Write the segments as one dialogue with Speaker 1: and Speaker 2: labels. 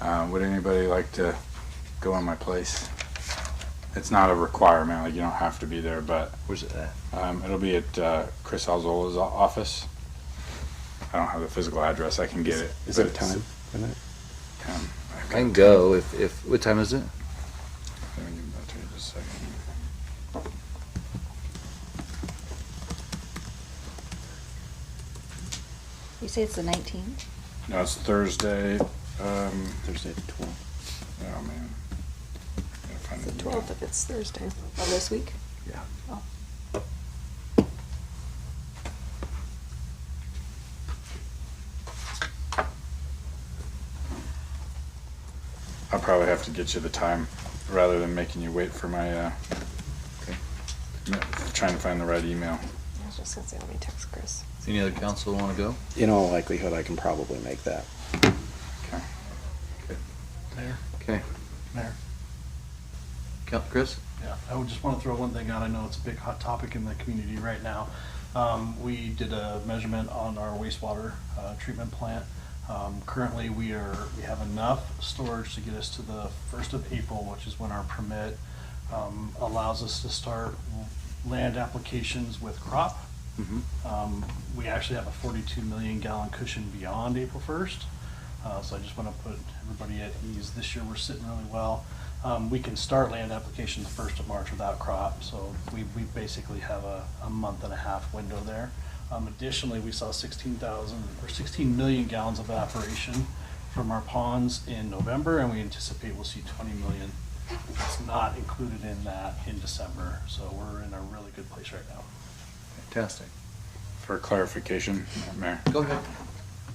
Speaker 1: Uh, would anybody like to go in my place? It's not a requirement, like you don't have to be there, but
Speaker 2: Where's it at?
Speaker 1: um, it'll be at uh, Chris Alzola's o- office. I don't have the physical address. I can get it.
Speaker 3: Is it
Speaker 1: but
Speaker 3: a
Speaker 1: it's-
Speaker 3: time? for that?
Speaker 1: Um, I've
Speaker 2: I
Speaker 1: got-
Speaker 2: can go if, if, what time is it?
Speaker 1: Let me give that to you just a second.
Speaker 4: You say it's the nineteenth?
Speaker 1: No, it's Thursday. Um,
Speaker 3: Thursday at twelve.
Speaker 1: oh man. Gotta find
Speaker 5: The
Speaker 1: the email.
Speaker 5: 12th, if it's Thursday of this week.
Speaker 3: Yeah.
Speaker 1: I'll probably have to get you the time rather than making you wait for my, uh,
Speaker 2: Okay.
Speaker 1: m- trying to find the right email.
Speaker 5: I was just gonna say, let me text Chris.
Speaker 2: Any other council wanna go?
Speaker 3: In all likelihood, I can probably make that.
Speaker 1: Okay.
Speaker 6: Mayor,
Speaker 2: Okay.
Speaker 6: Mayor.
Speaker 2: Count, Chris?
Speaker 6: Yeah, I would just want to throw one thing out. I know it's a big hot topic in the community right now. Um, we did a measurement on our wastewater, uh, treatment plant. Um, currently, we are, we have enough storage to get us to the first of April, which is when our permit, um, allows us to start land applications with crop.
Speaker 2: Mm-hmm.
Speaker 6: Um, we actually have a forty-two million gallon cushion beyond April first. Uh, so I just want to put everybody at ease. This year, we're sitting really well. Um, we can start land application the first of March without crop, so we, we basically have a, a month and a half window there. Um, additionally, we saw sixteen thousand, or sixteen million gallons of evaporation from our ponds in November, and we anticipate we'll see twenty million. It's not included in that in December, so we're in a really good place right now.
Speaker 2: Fantastic.
Speaker 1: For clarification, Mayor.
Speaker 2: Go ahead.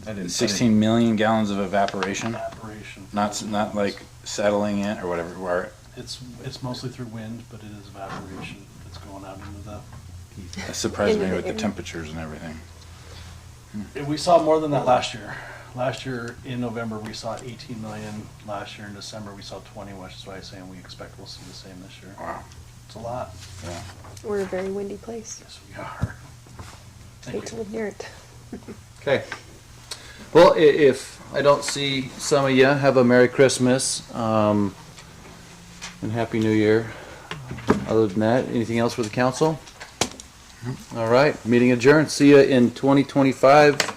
Speaker 2: I didn't.
Speaker 1: Sixteen million gallons of evaporation,
Speaker 6: Evaporation.
Speaker 1: not, s- not like settling it or whatever, where
Speaker 6: It's, it's mostly through wind, but it is evaporation that's going out into the
Speaker 1: it surprised me
Speaker 5: Into the
Speaker 1: with the
Speaker 5: air.
Speaker 1: temperatures and everything.
Speaker 6: And we saw more than that last year. Last year in November, we saw 18 million. Last year in December, we saw 20, which is why I'm saying we expect we'll see the same this year.
Speaker 1: Wow.
Speaker 6: It's a lot.
Speaker 1: Yeah.
Speaker 5: We're a very windy place.
Speaker 6: Yes, we are.
Speaker 5: Hate
Speaker 6: Thank
Speaker 5: to
Speaker 6: you.
Speaker 5: live near it.
Speaker 2: Okay. Well, i- if I don't see some of you, have a Merry Christmas, um, and Happy New Year. Other than that, anything else for the council? All right, meeting adjourned. See you in twenty twenty-five.